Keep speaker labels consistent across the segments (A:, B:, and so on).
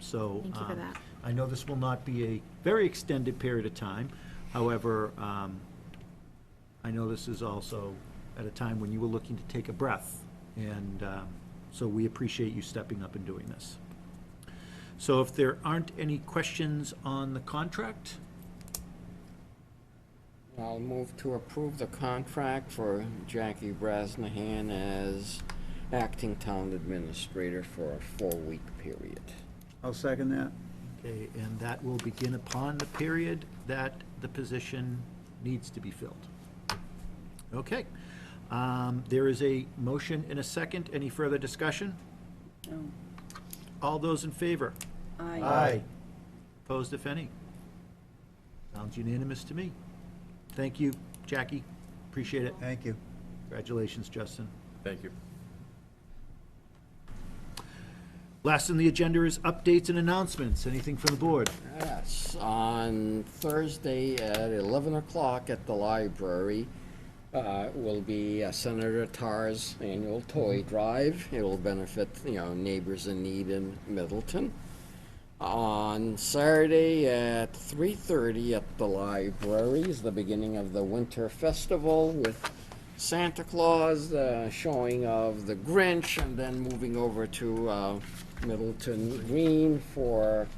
A: So.
B: Thank you for
A: um,
B: that.
A: I know this will not be a very extended period of time. However, um, I know this is also at a time when you were looking to take a breath. And um, so we appreciate you stepping up and doing this. So if there aren't any questions on the contract,
C: I'll move to approve the contract for Jackie Brasnahan as acting town administrator for a four-week period.
D: I'll second that.
A: okay, and that will begin upon the period that the position needs to be filled. Okay. Um, There is a motion and a second. Any further discussion?
E: No.
A: All those in favor?
E: Aye.
A: Opposed, if any? Sounds unanimous to me. Thank you, Jackie. Appreciate it.
D: Thank you.
A: Congratulations, Justin.
F: Thank you.
A: Last on the agenda is updates and announcements. Anything from the board?
C: Yes, on Thursday at 11 o'clock at the library uh, will be uh, Senator Tar's annual toy drive. It'll benefit, you know, neighbors in need in Middleton. On Saturday at 3:30 at the library is the beginning of the Winter Festival with Santa Claus, uh, showing of the Grinch, and then moving over to uh, Middleton Green for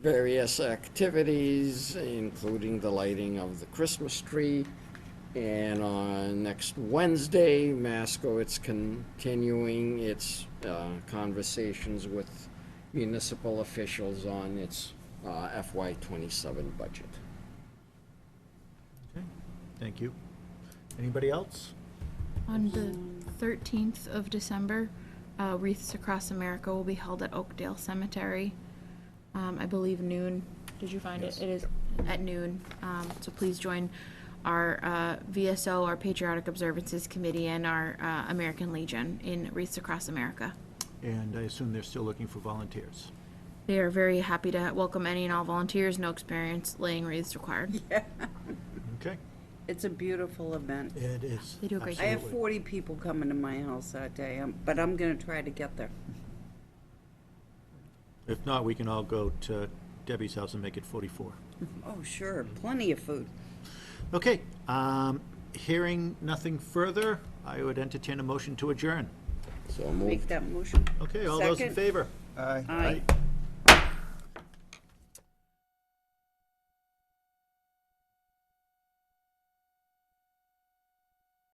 C: various activities, including the lighting of the Christmas tree. And on next Wednesday, Masco, it's continuing its uh, conversations with municipal officials on its uh, FY twenty-seven budget.
A: Okay, Thank you. Anybody else?
B: On the 13th of December, uh, Wreaths Across America will be held at Oakdale Cemetery, um, I believe noon. Did you find it?
F: Yes.
B: It is at noon. Um, So please join our uh, VSO, our Patriotic Observances Committee, and our uh, American Legion in Wreaths Across America.
A: And I assume they're still looking for volunteers.
B: They are very happy to welcome any and all volunteers, no experience laying wreaths required.
A: Okay,
E: It's a beautiful event.
A: it is.
B: They do a great
E: I have
A: Absolutely.
E: 40 people coming to my house that day, um, but I'm going to try to get there.
A: If not, we can all go to Debbie's house and make it 44.
E: Oh, sure, plenty of food.
A: Okay, um, hearing nothing further, I would entertain a motion to adjourn.
C: So
E: Make
C: moved.
E: that motion.
A: Okay, all those in
E: Second.
A: favor?
D: Aye.
E: Aye.